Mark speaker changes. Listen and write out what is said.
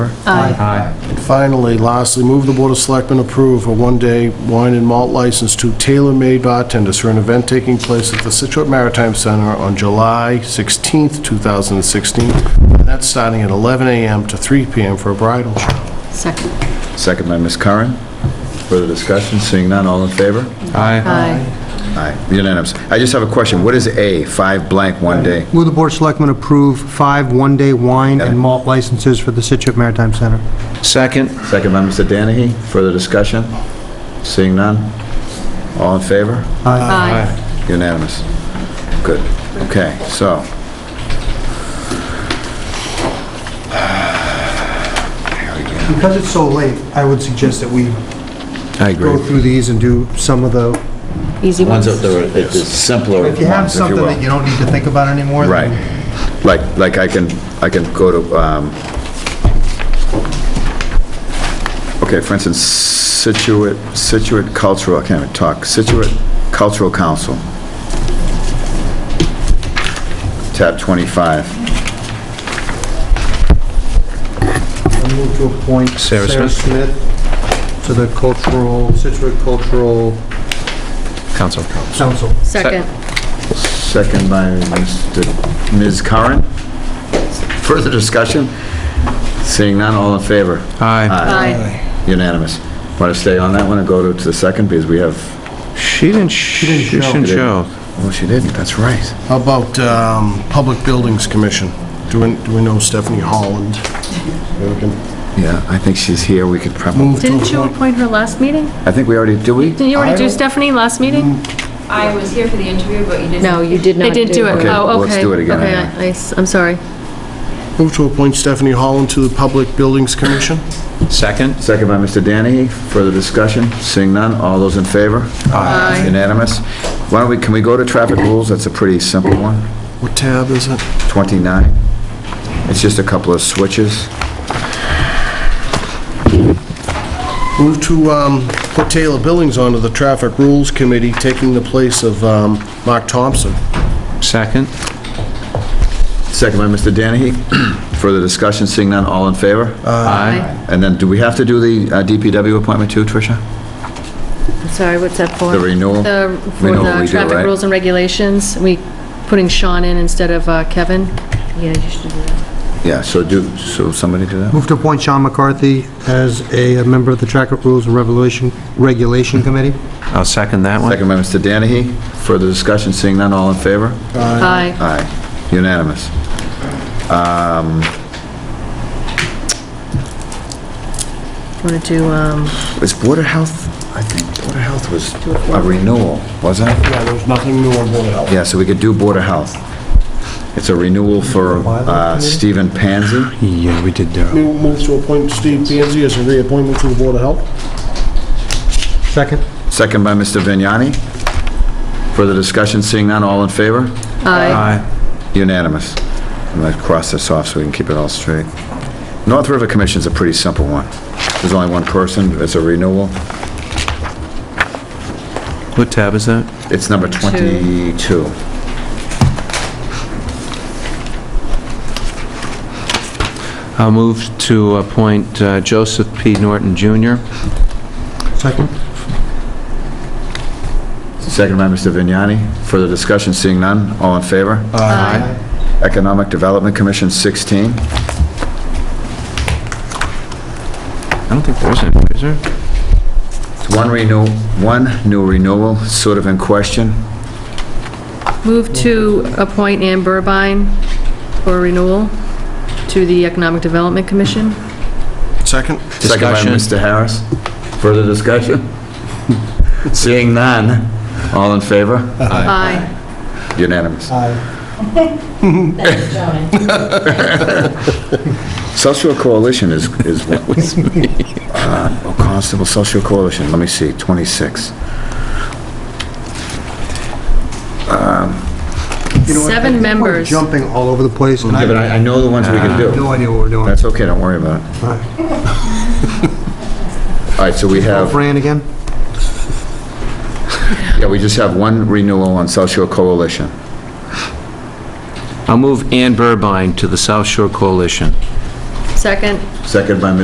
Speaker 1: Aye.
Speaker 2: And finally, lastly, move the Board of Selectmen approve a one-day wine and malt license to Tailor Made Bartenders for an event taking place at the Situate Maritime Center on July 16th, 2016. And that's starting at 11 a.m. to 3 p.m. for a bridal shower.
Speaker 3: Second.
Speaker 1: Second by Ms. Curran. Further discussion? Seeing none, all in favor? Aye.
Speaker 3: Aye.
Speaker 1: Aye, unanimous. I just have a question. What is A, five blank, one day?
Speaker 4: Will the Board of Selectmen approve five one-day wine and malt licenses for the Situate Maritime Center?
Speaker 5: Second.
Speaker 1: Second by Mr. Danahy. Further discussion? Seeing none, all in favor?
Speaker 3: Aye.
Speaker 1: Unanimous. Good. Okay, so.
Speaker 4: Because it's so late, I would suggest that we
Speaker 1: I
Speaker 4: go through these and do some of the,
Speaker 3: Easy ones.
Speaker 5: Ones that are, it's simpler ones,
Speaker 4: if you have something
Speaker 1: will.
Speaker 4: that you don't need to think about anymore.
Speaker 1: Right.
Speaker 4: then-
Speaker 1: Like, like I can, I can go to, um, okay, for instance, Situate, Situate Cultural, I can't even talk, Situate Cultural Council. Tab 25.
Speaker 4: I move to appoint
Speaker 5: Sarah
Speaker 4: Sarah Smith to the Cultural, Situate Cultural
Speaker 5: Council.
Speaker 4: Council.
Speaker 3: Second.
Speaker 1: Second by Mr. Ms. Curran. Further discussion? Seeing none, all in favor?
Speaker 5: Aye.
Speaker 3: Aye.
Speaker 1: Unanimous. Want to stay on that one and go to to the second, because we have,
Speaker 5: She didn't, she
Speaker 4: didn't show.
Speaker 5: didn't show.
Speaker 1: oh, she didn't, that's right.
Speaker 2: How about um, Public Buildings Commission? Do we do we know Stephanie Holland? Maybe we can
Speaker 1: Yeah, I think she's here, we could probably,
Speaker 2: Move to
Speaker 3: Didn't you
Speaker 2: appoint.
Speaker 3: appoint her last meeting?
Speaker 1: I think we already, do we?
Speaker 3: Didn't you already do Stephanie last
Speaker 4: Mm.
Speaker 3: meeting?
Speaker 6: I was here for the interview, but you didn't.
Speaker 3: No, you did not
Speaker 6: They
Speaker 3: do it.
Speaker 6: did do it.
Speaker 1: Okay,
Speaker 3: Oh, okay.
Speaker 1: let's do it again
Speaker 3: Okay,
Speaker 1: anyway.
Speaker 3: I- I s- I'm sorry.
Speaker 2: Move to appoint Stephanie Holland to the Public Buildings Commission?
Speaker 5: Second.
Speaker 1: Second by Mr. Danahy, further discussion, seeing none, all those in favor?
Speaker 3: Aye.
Speaker 1: Unanimous. Why don't we, can we go to traffic rules, that's a pretty simple one,
Speaker 2: What tab is it?
Speaker 1: 29. It's just a couple of switches.
Speaker 2: Move to um, put Taylor Billings onto the Traffic Rules Committee, taking the place of um, Mark Thompson.
Speaker 5: Second.
Speaker 1: Second by Mr. Danahy, further discussion, seeing none, all in favor?
Speaker 5: Aye.
Speaker 1: And then, do we have to do the uh, DPW appointment too, Tricia?
Speaker 3: I'm sorry, what's that for?
Speaker 1: The renewal?
Speaker 3: The,
Speaker 1: We
Speaker 3: for
Speaker 1: know what we
Speaker 3: the
Speaker 1: do,
Speaker 3: traffic
Speaker 1: right?
Speaker 3: rules and regulations, we putting Sean in instead of uh, Kevin? Yeah, you should do that.
Speaker 1: Yeah, so do, so somebody do that?
Speaker 4: Move to appoint Sean McCarthy as a member of the Track of Rules and Revelation, Regulation Committee.
Speaker 5: I'll second that one.
Speaker 1: Second by Mr. Danahy, further discussion, seeing none, all in favor?
Speaker 3: Aye.
Speaker 1: Aye, unanimous.
Speaker 3: Want to do, um,
Speaker 1: Was Board of Health, I think Board of Health was a renewal, wasn't it?
Speaker 2: Yeah, there's nothing new on Board of Health.
Speaker 1: Yeah, so we could do Board of Health. It's a renewal for uh, Stephen Panzi.
Speaker 5: Yeah, we did that.
Speaker 2: Move move to appoint Steve Panzi as a reappointment to the Board of Health.
Speaker 4: Second?
Speaker 1: Second by Mr. Vignani. Further discussion, seeing none, all in favor?
Speaker 3: aye.
Speaker 5: Aye.
Speaker 1: Unanimous. I'm going to cross this off so we can keep it all straight. North River Commission's a pretty simple one. There's only one person, it's a renewal.
Speaker 5: What tab is that?
Speaker 1: It's number 22.
Speaker 5: I'll move to appoint uh, Joseph P. Norton Jr.
Speaker 4: Second?
Speaker 1: Second by Mr. Vignani. Further discussion, seeing none, all in favor?
Speaker 5: Aye.
Speaker 1: Economic Development Commission, 16.
Speaker 5: I don't think there's any, is there?
Speaker 1: It's One renew, one new renewal, sort of in question.
Speaker 3: Move to appoint Ann Burbine for renewal to the Economic Development Commission.
Speaker 2: Second?
Speaker 1: Second by
Speaker 5: Discussion.
Speaker 1: Mr. Harris. Further discussion? Seeing none, all in favor?
Speaker 3: Aye.
Speaker 1: Unanimous.
Speaker 4: Aye.
Speaker 1: Social Coalition is, is what was, uh, Constable Social Coalition, let me see, 26.
Speaker 3: Seven members.
Speaker 4: Jumping all over the place, and I
Speaker 1: Yeah, but
Speaker 4: have
Speaker 1: I, I know the ones we can do.
Speaker 4: no idea what we're doing.
Speaker 1: That's okay, don't worry about it.
Speaker 4: All
Speaker 1: All right, so we
Speaker 4: right.
Speaker 1: have,
Speaker 4: Fran again?
Speaker 1: yeah, we just have one renewal on Social Coalition.
Speaker 5: I'll move Ann Burbine to the South Shore Coalition.
Speaker 7: Second?
Speaker 3: Second by Ms.